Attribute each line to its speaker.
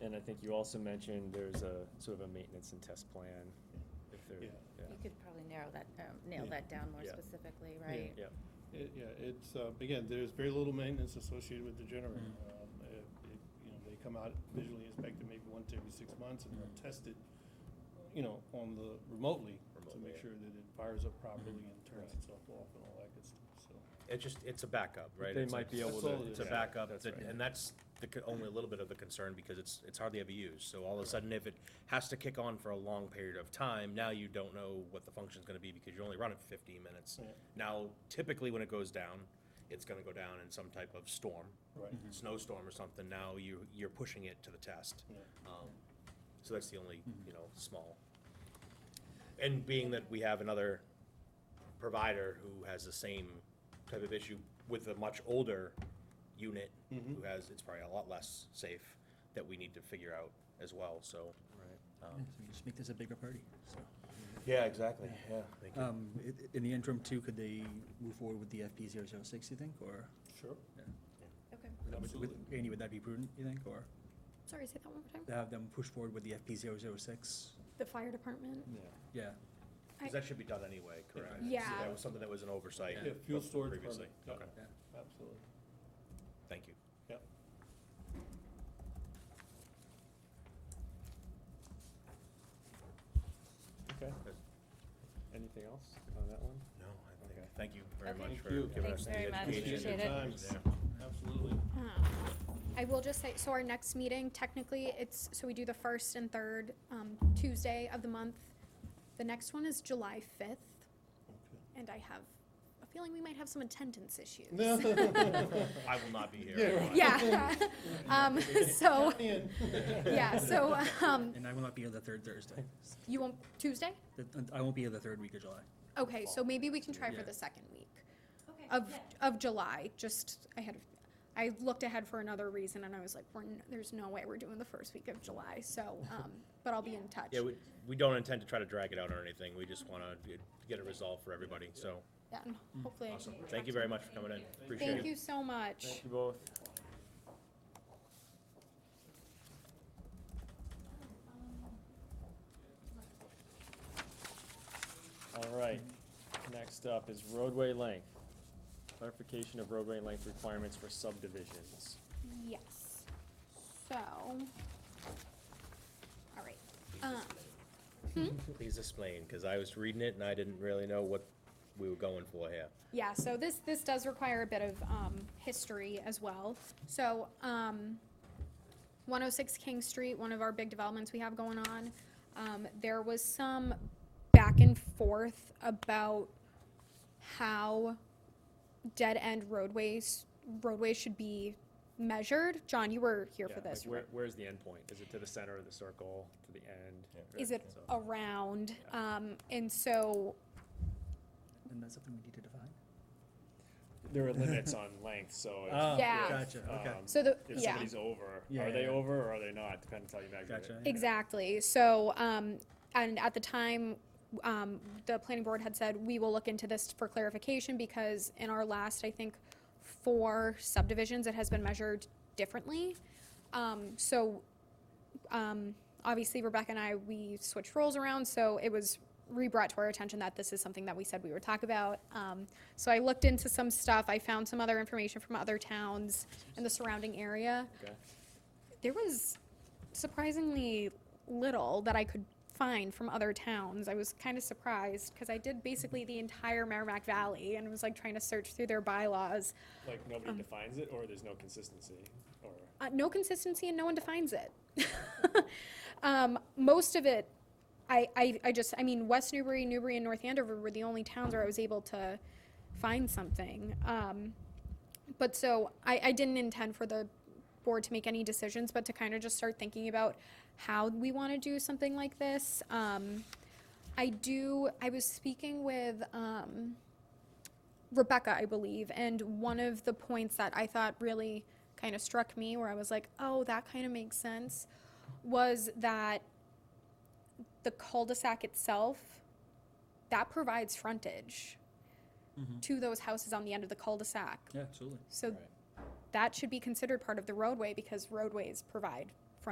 Speaker 1: And I think you also mentioned there's a sort of a maintenance and test plan if there,
Speaker 2: Yeah.
Speaker 1: yeah,
Speaker 3: You could probably narrow that, um, nail
Speaker 2: Yeah.
Speaker 3: that down more
Speaker 1: Yeah.
Speaker 3: specifically, right?
Speaker 1: yeah.
Speaker 2: It, yeah, it's, uh, again, there's very little maintenance associated with the generator. Um, it- it- You know, they come out visually inspected maybe once every six months and they're tested, you know, on the, remotely to
Speaker 4: Remotely,
Speaker 2: make
Speaker 4: yeah.
Speaker 2: sure that it fires up properly and turns
Speaker 1: Right.
Speaker 2: itself off and all that good stuff, so.
Speaker 4: It just, it's a backup, right?
Speaker 1: They
Speaker 4: It's
Speaker 1: might
Speaker 4: like-
Speaker 1: be able
Speaker 2: That's all
Speaker 1: to.
Speaker 2: it
Speaker 4: It's a
Speaker 2: Yeah,
Speaker 4: backup,
Speaker 1: that's
Speaker 4: that-
Speaker 1: right.
Speaker 4: and that's the, co- only a little bit of the concern, because it's, it's hardly ever used. So all of a sudden, if it has to kick on for a long period of time, now you don't know what the function's gonna be, because you only run it fifteen minutes.
Speaker 2: Yeah.
Speaker 4: Now, typically, when it goes down, it's gonna go down in some type of storm,
Speaker 2: Right.
Speaker 4: snowstorm or something, now you, you're pushing it to the test.
Speaker 2: Yeah. Mm-hmm.
Speaker 4: Um, So that's the only, you know, small. And being that we have another provider who has the same type of issue with a much older unit,
Speaker 2: Mm-hmm.
Speaker 4: who has, it's probably a lot less safe, that we need to figure out as well, so. um.
Speaker 5: Yeah, so Just make this a bigger party, so.
Speaker 4: Yeah, exactly, yeah. Thank you.
Speaker 5: Um, i- i- In the interim too, could they move forward with the FP 006, you think, or?
Speaker 2: Sure.
Speaker 3: Okay,
Speaker 5: with- with- Andy, would that be prudent, you think, or
Speaker 6: Sorry, say that one more
Speaker 5: to
Speaker 6: time.
Speaker 5: have them push forward with the FP 006?
Speaker 6: The fire department?
Speaker 5: Yeah,
Speaker 4: 'Cause that should be done anyway, correct?
Speaker 6: Yeah.
Speaker 4: That was something that was an oversight.
Speaker 2: Yeah, fuel storage
Speaker 4: Previously,
Speaker 2: permit. yeah,
Speaker 4: okay,
Speaker 5: yeah.
Speaker 2: Absolutely,
Speaker 4: thank you.
Speaker 2: yep.
Speaker 1: Okay. Anything else on that one?
Speaker 4: No, I
Speaker 1: think- Okay.
Speaker 4: thank you very
Speaker 3: Okay.
Speaker 4: much
Speaker 2: Thank
Speaker 4: for
Speaker 2: you.
Speaker 4: giving
Speaker 3: Thanks
Speaker 4: us the
Speaker 3: very much.
Speaker 4: education.
Speaker 3: Appreciate
Speaker 2: your
Speaker 3: it.
Speaker 2: time.
Speaker 4: Yeah.
Speaker 2: Absolutely.
Speaker 6: Um, I will just say, so our next meeting, technically, it's, so we do the first and third um, Tuesday of the month. The next one is July 5th, and I have a feeling we might have some attendance issues.
Speaker 4: I will not be here.
Speaker 2: Yeah, right.
Speaker 6: Yeah. Um, So,
Speaker 2: Count me in.
Speaker 6: yeah, so um,
Speaker 5: And I will not be here the third Thursday.
Speaker 6: you won't, Tuesday?
Speaker 5: The- I won't be here the third week of July.
Speaker 6: Okay, so maybe we can try for
Speaker 5: Yeah.
Speaker 6: the second week
Speaker 3: okay.
Speaker 6: of, of July, just, I had, I looked ahead for another reason, and I was like, we're, n- there's no way we're doing the first week of July, so, um, but I'll be in touch.
Speaker 4: Yeah, we, we don't intend to try to drag it out or anything, we just wanna get- get it resolved for everybody, so,
Speaker 6: Yeah, and hopefully. I can
Speaker 4: awesome.
Speaker 6: get
Speaker 4: Thank
Speaker 6: back
Speaker 4: you
Speaker 6: to
Speaker 4: very much for coming in, appreciate it.
Speaker 6: Thank you so much.
Speaker 1: Thank you both. All right, next up is roadway length. Clarification of roadway length requirements for subdivisions.
Speaker 6: Yes. So, all right. Um,
Speaker 4: Please explain, cause I was reading it and I didn't really know what we were going for here.
Speaker 6: Yeah, so this, this does require a bit of um, history as well. So um, 106 King Street, one of our big developments we have going on, um, there was some back and forth about how dead-end roadways, roadways should be measured. John, you were here
Speaker 1: Yeah,
Speaker 6: for
Speaker 1: like
Speaker 6: this.
Speaker 1: where- Where's the endpoint? Is it to the center of the circle, to the end?
Speaker 6: Is it
Speaker 1: So-
Speaker 6: around? Um, And so
Speaker 5: And that's something we need to define?
Speaker 1: There are limits on length, so
Speaker 5: Ah,
Speaker 1: if,
Speaker 6: Yeah.
Speaker 5: Gotcha, okay,
Speaker 1: um,
Speaker 6: So the-
Speaker 1: if
Speaker 6: yeah.
Speaker 1: somebody's over,
Speaker 5: Yeah,
Speaker 1: are
Speaker 5: yeah,
Speaker 1: they
Speaker 5: yeah.
Speaker 1: over or are they not, depends how you measure it.
Speaker 5: gotcha. yeah.
Speaker 6: Exactly. So, um, and at the time, um, the planning board had said, we will look into this for clarification because in our last, I think, four subdivisions, it has been measured differently. Um, so, um, obviously Rebecca and I, we switched roles around, so it was re-brought to our attention that this is something that we said we would talk about. Um, so I looked into some stuff. I found some other information from other towns in the surrounding area
Speaker 1: Okay.
Speaker 6: there was surprisingly little that I could find from other towns. I was kind of surprised because I did basically the entire Merrimack Valley and was like trying to search through their bylaws.
Speaker 1: Like nobody
Speaker 6: Um.
Speaker 1: defines it, or there's no consistency, or
Speaker 6: Uh, no consistency and no one defines it. um, most of it, I, I, I just, I mean, West Newbury, Newbury, and North Andover were the only towns where I was able to find something. Um, but so I, I didn't intend for the board to make any decisions, but to kind of just start thinking about how we want to do something like this. Um, I do, I was speaking with, um, Rebecca, I believe, and one of the points that I thought really kind of struck me where I was like, oh, that kind of makes sense, was that the cul-de-sac itself, that provides frontage to those houses on the end of the cul-de-sac.
Speaker 5: Yeah, absolutely.
Speaker 6: So that should be considered part of the roadway because roadways provide